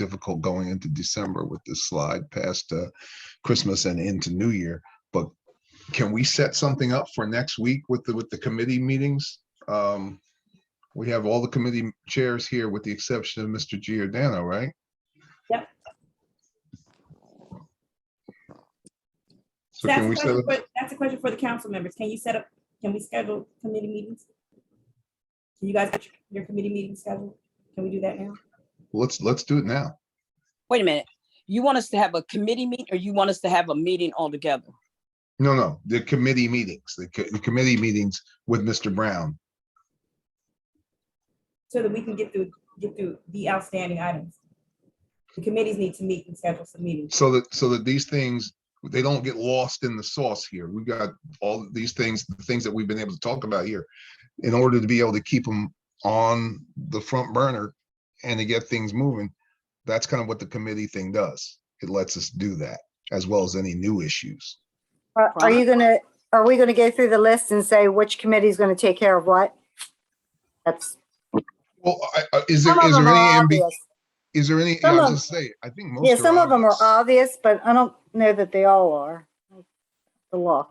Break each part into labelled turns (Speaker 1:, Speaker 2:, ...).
Speaker 1: difficult going into December with this slide past uh, Christmas and into New Year. But can we set something up for next week with the, with the committee meetings? Um, We have all the committee chairs here with the exception of Mr. Giordano, right?
Speaker 2: Yep.
Speaker 1: So
Speaker 2: That's
Speaker 1: can
Speaker 2: a
Speaker 1: we set
Speaker 2: question
Speaker 1: up,
Speaker 2: for- that's a question for the council members. Can you set up, can we schedule committee meetings? Can you guys get your- your committee meeting scheduled? Can we do that now?
Speaker 1: let's, let's do it now.
Speaker 3: Wait a minute. You want us to have a committee meet or you want us to have a meeting altogether?
Speaker 1: No, no, the committee meetings, the co- the committee meetings with Mr. Brown.
Speaker 2: So that we can get through, get through the outstanding items. The committees need to meet and schedule some meetings.
Speaker 1: so that, so that these things, they don't get lost in the sauce here. We got all these things, the things that we've been able to talk about here. In order to be able to keep them on the front burner and to get things moving, that's kind of what the committee thing does. It lets us do that as well as any new issues.
Speaker 4: Are are you gonna, are we gonna go through the list and say which committee is gonna take care of what? That's.
Speaker 1: Well, I, I, is there,
Speaker 4: some of
Speaker 1: is there
Speaker 4: them
Speaker 1: any,
Speaker 4: are
Speaker 1: ambi-
Speaker 4: obvious.
Speaker 1: is there any, I
Speaker 4: Some
Speaker 1: was
Speaker 4: of-
Speaker 1: just say, I think most.
Speaker 4: Yeah, some of them are
Speaker 1: obvious,
Speaker 4: obvious, but I don't know that they all are. The law.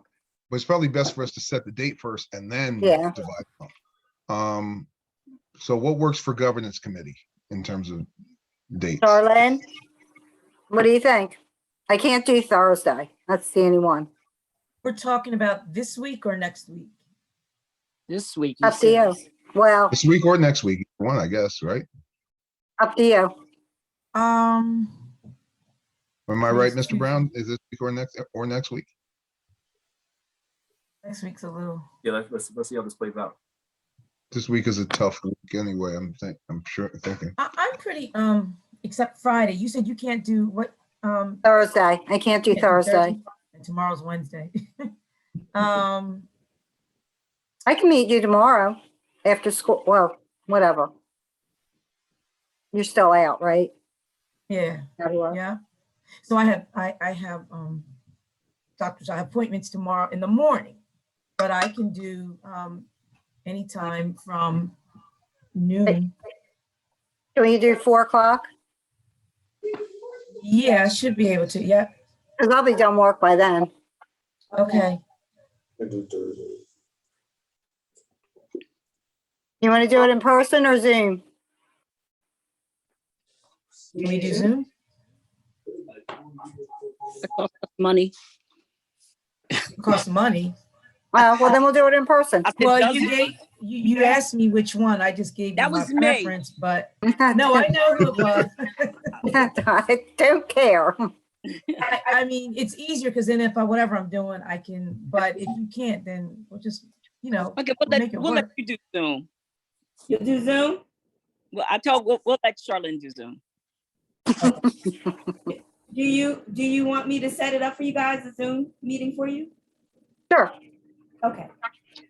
Speaker 1: But it's probably best for us to set the date first and then.
Speaker 4: Yeah.
Speaker 1: divide them. Um, so what works for governance committee in terms of dates?
Speaker 4: Darlene? What do you think? I can't do Thursday. That's the only one.
Speaker 5: We're talking about this week or next week?
Speaker 3: This week?
Speaker 4: Up to
Speaker 3: said.
Speaker 4: you. Well,
Speaker 1: This week or next week, one, I guess, right?
Speaker 4: up to you.
Speaker 5: Um,
Speaker 1: Am I right,
Speaker 5: Next
Speaker 1: Mr. Brown? Is this week or next, or next week?
Speaker 5: next week's a little,
Speaker 6: Yeah, let's, let's, let's see how this plays out.
Speaker 1: This week is a tough week anyway, I'm think, I'm sure, thinking.
Speaker 5: I, I'm pretty, um, except Friday. You said you can't do what, um.
Speaker 4: Thursday. I can't do
Speaker 5: can't do
Speaker 4: Thursday.
Speaker 5: And tomorrow's Wednesday. Um,
Speaker 4: I can meet you tomorrow after school. Well, whatever. You're still out, right?
Speaker 5: yeah,
Speaker 4: Out of work?
Speaker 5: yeah. So I have, I, I have, um, doctors, I have appointments tomorrow in the morning, but I can do, um, anytime from noon.
Speaker 4: Can you do four o'clock?
Speaker 5: Yeah, I should be able to. Yeah,
Speaker 4: Because I'll be done work by then.
Speaker 5: okay.
Speaker 4: You want to do it in person or Zoom?
Speaker 5: Can we do Zoom?
Speaker 3: Money.
Speaker 5: It Costs money.
Speaker 4: Uh, well, then we'll do it in person.
Speaker 3: I said,
Speaker 5: Well,
Speaker 3: does
Speaker 5: you
Speaker 3: it?
Speaker 5: gave, you, you asked me which one. I just gave you
Speaker 3: That
Speaker 5: my
Speaker 3: was me.
Speaker 5: preference, but no, I know who it was.
Speaker 4: I don't care.
Speaker 5: I, I mean, it's easier because then if I, whatever I'm doing, I can, but if you can't, then we'll just, you know,
Speaker 3: Okay, we'll let,
Speaker 5: Make it
Speaker 3: we'll let
Speaker 5: work.
Speaker 3: you do Zoom.
Speaker 2: You'll do Zoom?
Speaker 3: Well, I told, we'll, we'll let Charlene do Zoom.
Speaker 2: Do you, do you want me to set it up for you guys, a Zoom meeting for you?
Speaker 4: Sure.
Speaker 2: Okay,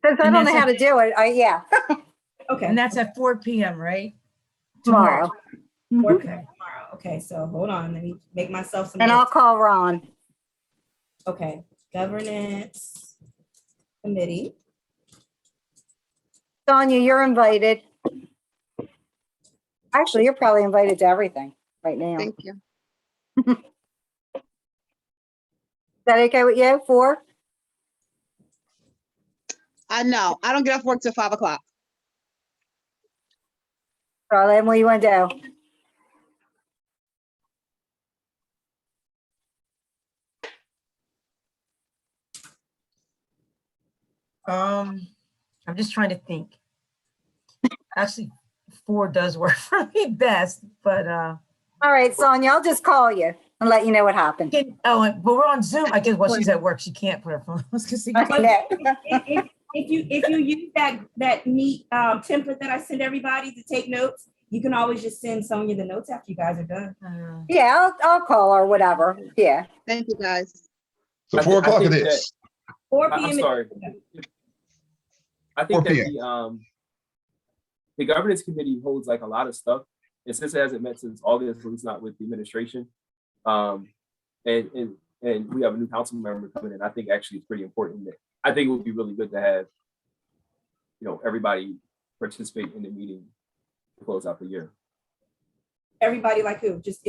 Speaker 4: Since I don't
Speaker 5: And
Speaker 4: know
Speaker 5: that's
Speaker 4: how to do it, I, yeah,
Speaker 2: okay.
Speaker 5: and that's at four PM, right?
Speaker 4: tomorrow.
Speaker 2: Work tomorrow. Okay, so hold on, let me make myself some.
Speaker 4: And I'll call Ron.
Speaker 2: Okay, governance committee.
Speaker 4: Sonia, you're invited. Actually, you're probably invited to everything right now. Is
Speaker 7: Thank you.
Speaker 4: that okay with you? Four?
Speaker 7: I know. I don't get off work till five o'clock.
Speaker 4: Charlene, what you want to do?
Speaker 5: Um, I'm just trying to think. Actually, four does work for me best, but, uh,
Speaker 4: All right, Sonia, I'll just call you and let you know what happened.
Speaker 5: can, oh, and- but we're on Zoom. I guess, well, she's at work. She can't put her phone. I was gonna say,
Speaker 4: I know.
Speaker 2: If if- if you, if you use that, that neat um, template that I send everybody to take notes, you can always just send Sonya the notes after you guys are done.
Speaker 5: uh,
Speaker 4: Yeah, I'll, I'll call her, whatever. Yeah.
Speaker 7: Thank you, guys.
Speaker 1: So
Speaker 6: I
Speaker 1: four
Speaker 6: thi- I
Speaker 1: o'clock it
Speaker 6: think that-
Speaker 1: is.
Speaker 2: Four
Speaker 6: I-
Speaker 2: PM.
Speaker 6: I'm
Speaker 2: is-
Speaker 6: sorry.
Speaker 1: 4
Speaker 6: I think that
Speaker 1: p.m..
Speaker 6: the, um, the governance committee holds like a lot of stuff, and since it hasn't met since August, at least not with the administration. Um, and, and, and we have a new council member coming in, I think actually it's pretty important that, I think it would be really good to have, you know, everybody participate in the meeting to close out the year.
Speaker 2: Everybody like who? Just